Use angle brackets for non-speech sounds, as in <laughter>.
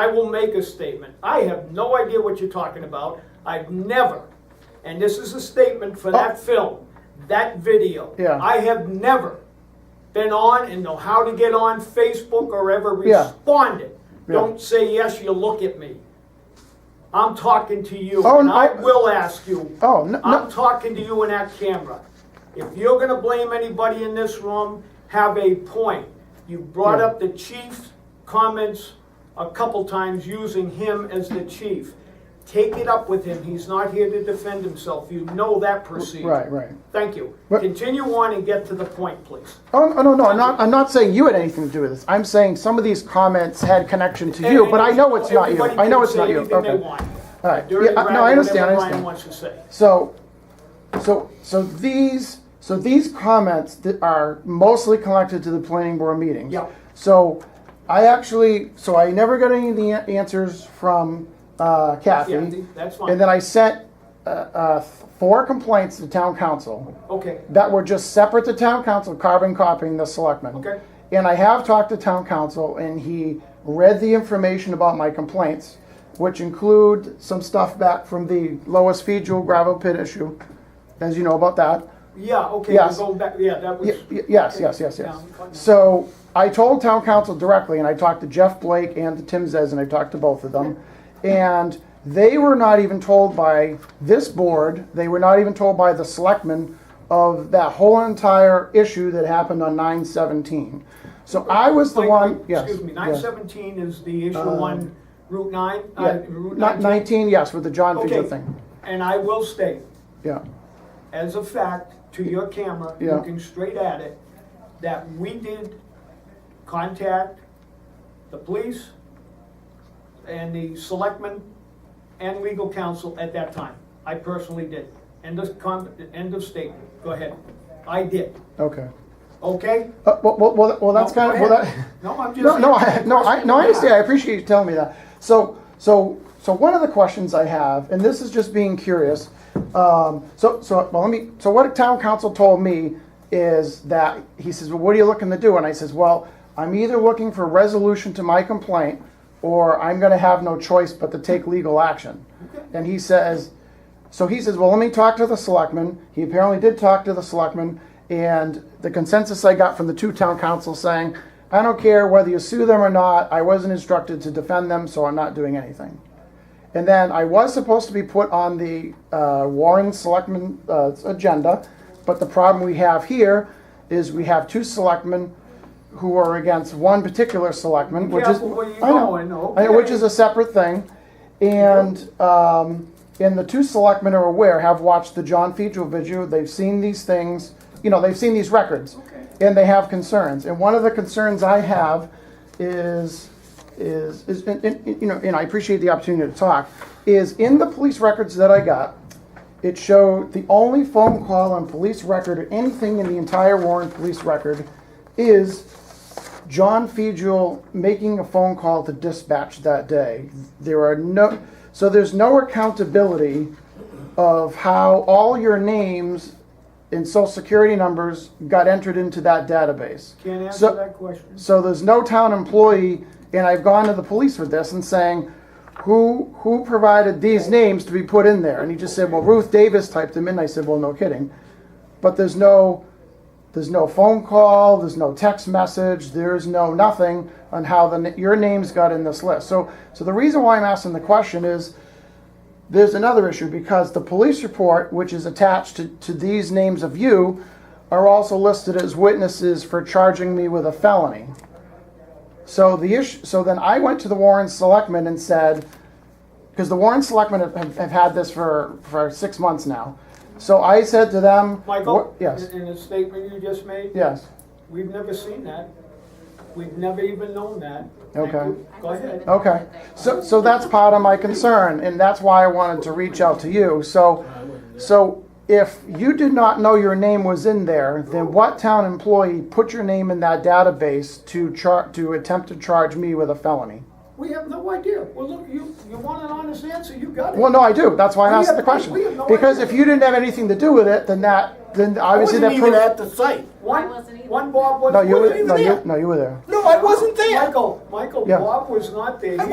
I will make a statement. I have no idea what you're talking about. I've never, and this is a statement for that film, that video. Oh. Yeah. I have never been on and know how to get on Facebook or ever Yeah. responded. Yeah. Don't say yes, you look at me. I'm talking to you, Oh, and no. I will ask you. Oh, no, no. I'm talking to you in that camera. If you're gonna blame anybody in this room, have a point. You brought Yeah. up the chief's comments a couple times using him as the chief. Take it up with him, he's not here to defend himself, you know that procedure. Right, right. Thank you. But- Continue on and get to the point, please. Oh, no, no, no, I'm not, I'm not saying you had anything to do with this. I'm saying some of these comments had connection to you, but I know it's not you. Everybody I know can it's not say you. anything they Okay. want. All right. Dirty, Yeah, I- no, I ratty, understand, I whatever Ryan understand. wants to say. So, so, so these, so these comments that are mostly collected to the planning board meetings. Yeah. So, I actually, so I never got any of the an- answers from uh, Kathy. Yeah, that's fine. And then I sent uh, uh, four complaints to town council Okay, that were just separate to town council, carbon copying the selectmen. Okay. And I have talked to town council, and he read the information about my complaints, which include some stuff back from the lowest fee jewel gravel pit issue, as you know about that. yeah, okay, Yes. we're going back, yeah, that was. Y- y- Yes, yes, yes, Yeah, yes. I'm fine now. So I told town council directly, and I talked to Jeff Blake and to Tim Zez, and I talked to both of them. And they were not even told by this board, they were not even told by the selectmen of that whole entire issue that happened on nine seventeen. So I was the Mike, one, wait, yes. Excuse me, nine yes. Um, seventeen is the issue on Route nine? uh, Yeah, Route not nineteen, yes, with the John Fisher Okay, thing, and I will state, yeah. as a fact, to your camera, Yeah. looking straight at it, that we did contact the police and the selectmen and legal counsel at that time. I personally did. End of con, end of statement. Go ahead. I did, Okay. okay? Uh, well, well, well, well, that's No, kind of, go well, that. ahead. <laughs> No, I'm just. No, no, I, answering no, I, questions no, I you understand. I have. appreciate you telling me that. So, so, so one of the questions I have, and this is just being curious. Um, so, so, well, let me, so what town council told me is that, he says, well, what are you looking to do? And I says, well, I'm either looking for resolution to my complaint, or I'm gonna have no choice but to take legal action. And he says, so he says, well, let me talk to the selectmen. He apparently did talk to the selectmen, and the consensus I got from the two town councils saying, I don't care whether you sue them or not, I wasn't instructed to defend them, so I'm not doing anything. And then I was supposed to be put on the uh, Warren Selectmen uh, agenda, but the problem we have here is we have two selectmen who are against one particular selectman, which is. Careful where you're I know. going, I know, Which okay. is a separate thing. And, um, and the two selectmen are aware, have watched the John Fedro video, they've seen these things, you know, they've seen these records. And they have concerns. And one of the concerns I have is, is, is, and, and, you know, and I appreciate the opportunity to talk, is in the police records that I got, it showed the only phone call on police record or anything in the entire Warren police record is John Fegel making a phone call to dispatch that day. There are no, so there's no accountability of how all your names and social security numbers got entered into that database. Can't answer So- that question. so there's no town employee, and I've gone to the police with this and saying, who, who provided these names to be put in there? And he just said, well, Ruth Davis typed them in. I said, well, no kidding. But there's no, there's no phone call, there's no text message, there's no nothing on how the, your names got in this list. So, so the reason why I'm asking the question is, there's another issue because the police report, which is attached to, to these names of you, are also listed as witnesses for charging me with a felony. So the issue, so then I went to the Warren Selectmen and said, because the Warren Selectmen have, have, have had this for, for six months now. So I said to them, Michael? wh- yes, In in the statement you just made? yes, We've never seen that. We've never even known that. Thank Okay. Oh. you. Go ahead. okay. So, so that's part of my concern, and that's why I wanted to reach out to you. So, So if you did not know your name was in there, then what town employee put your name in that database to char, to attempt to charge me with a felony? We have no idea. Well, look, you, you want an honest answer, you got it. Well, no, I do. That's why I We asked have- the question. we have no Because idea. if you didn't have anything to do with it, then that, then I obviously wasn't that even proves. at the site. One, I wasn't either. one Bob was. No, you wasn't were, even no, you, there. no, you were there. No, I wasn't there. Michael, Michael, Yeah. Bob was not there. He